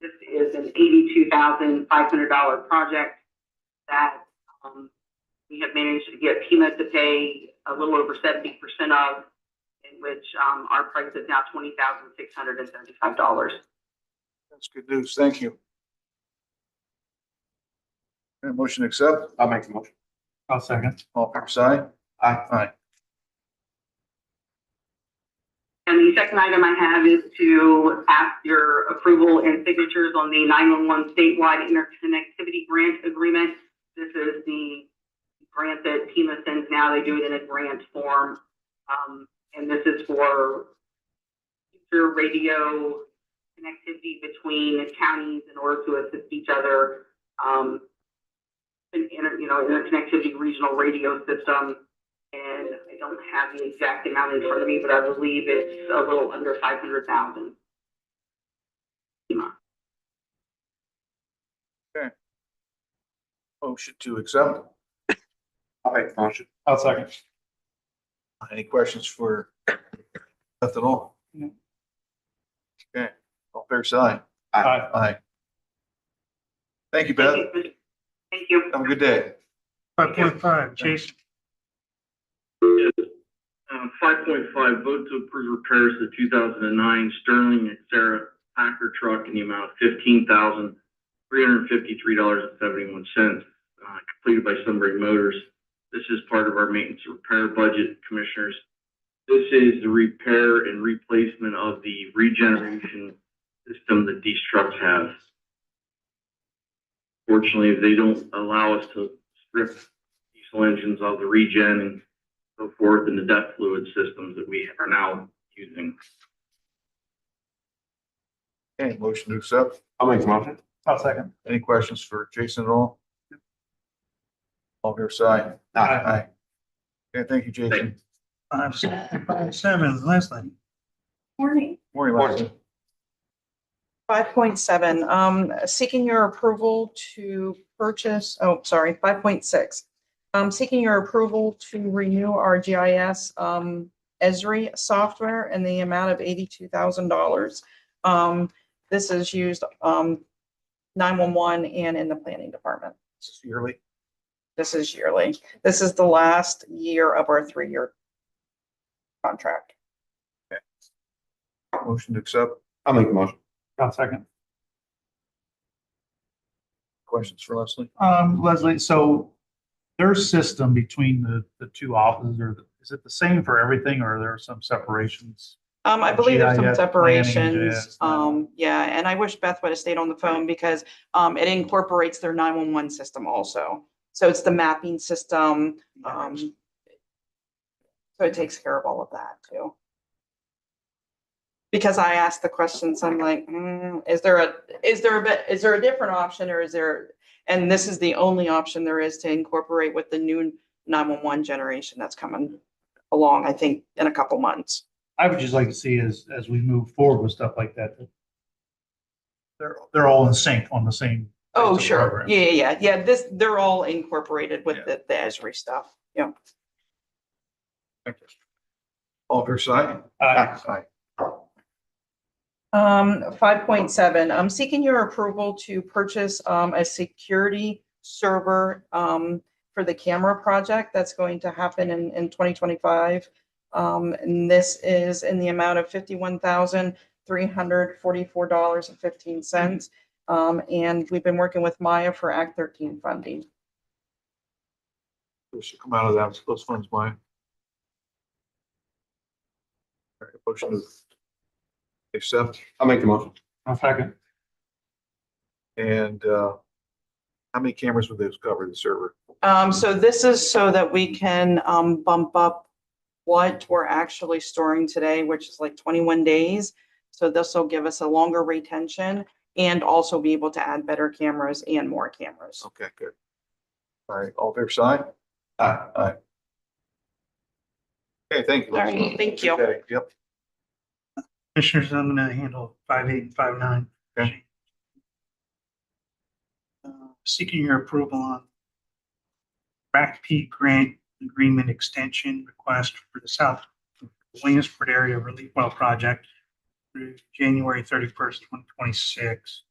is an eighty-two thousand five hundred dollar project that, um, we have managed to get Pima to pay a little over seventy percent of, in which, um, our price is now twenty thousand six hundred and seventy-five dollars. That's good news. Thank you. And motion to accept, I'll make the motion. I'll second. all fair side. Aye. Aye. And the second item I have is to ask your approval and signatures on the 911 statewide interconnectivity grant agreement. This is the grant that TMA sends now. They do it in a grant form. Um, and this is for future radio connectivity between counties in order to assist each other. Um, in, inter- you know, interconnectivity regional radio system. And I don't have the exact amount in front of me, but I believe it's a little under five hundred thousand. Motion to accept. I'll make the motion. I'll second. Any questions for Beth at all? No. Okay, all fair side. Uh, Aye. Aye. Thank you, Beth. Thank you. Thank you. Have a good day. Five point five, Jason, Um, five point five, vote to approve repairs to the two thousand and nine Sterling and Sarah Packer truck in the amount of fifteen thousand three hundred and fifty-three dollars and seventy-one cents, uh, completed by Sunbury Motors. This is part of our maintenance and repair budget, commissioners. This is the repair and replacement of the regeneration system that these trucks have. Fortunately, they don't allow us to strip diesel engines of the regen and so forth in the death fluid systems that we are now using. Okay, motion to accept. I'll make the motion. I'll second. Any questions for Jason at all? All fair side. Aye. Aye. Okay, thank you, Jason. five, five, seven, Leslie. Morning. Morning, Leslie. Five point seven, um, seeking your approval to purchase, oh, sorry, five point six. Um, seeking your approval to renew our GIS, um, Esri software in the amount of eighty-two thousand dollars. Um, this is used, um, nine-one-one and in the planning department. This is yearly. This is yearly. This is the last year of our three-year contract. Motion to accept. I'll make the motion. I'll second. Questions for Leslie? Um, Leslie, so their system between the, the two offices, or is it the same for everything, or are there some separations? Um, I believe there's some GIS planning and separations. GIS planning. Um, yeah, and I wish Beth would have stayed on the phone because, um, it incorporates their nine-one-one system also. So it's the mapping system, um, so it takes care of all of that too. Because I asked the questions, I'm like, mm, is there a, is there a bit, is there a different option or is there? And this is the only option there is to incorporate with the new nine-one-one generation that's coming along, I think, in a couple months. I would just like to see as, as we move forward with stuff like that. that They're, they're all in sync on the same. Oh, types of sure. programs. Yeah, yeah, yeah. Yeah, This, they're all incorporated with Yeah. the, the Esri stuff. Yeah. Thank you. All fair side. Aye. Aye. Um, five point seven, I'm seeking your approval to purchase, um, a security server, um, for the camera project that's going to happen in, in twenty twenty-five. Um, and this is in the amount of fifty-one thousand, three hundred forty-four dollars and fifteen cents. Um, and we've been working with Maya for Act thirteen funding. Those should come out of that, those funds, mine. All right, motion to accept I'll make the motion. I'll second. and, uh, how many cameras would those cover the server? Um, so this is so that we can, um, bump up what we're actually storing today, which is like twenty-one days. So this will give us a longer retention and also be able to add better cameras and more cameras. Okay, good. All right, all fair side. Aye. Aye. Okay, thank you. All right, thank you. Okay, Yep, Commissioners, I'm gonna handle five eight and five nine. Okay. Uh, Seeking your approval on Rack P Grant Agreement Extension Request for the South Williamsport Area Relief Well Project through January thirty-first, twenty twenty-six.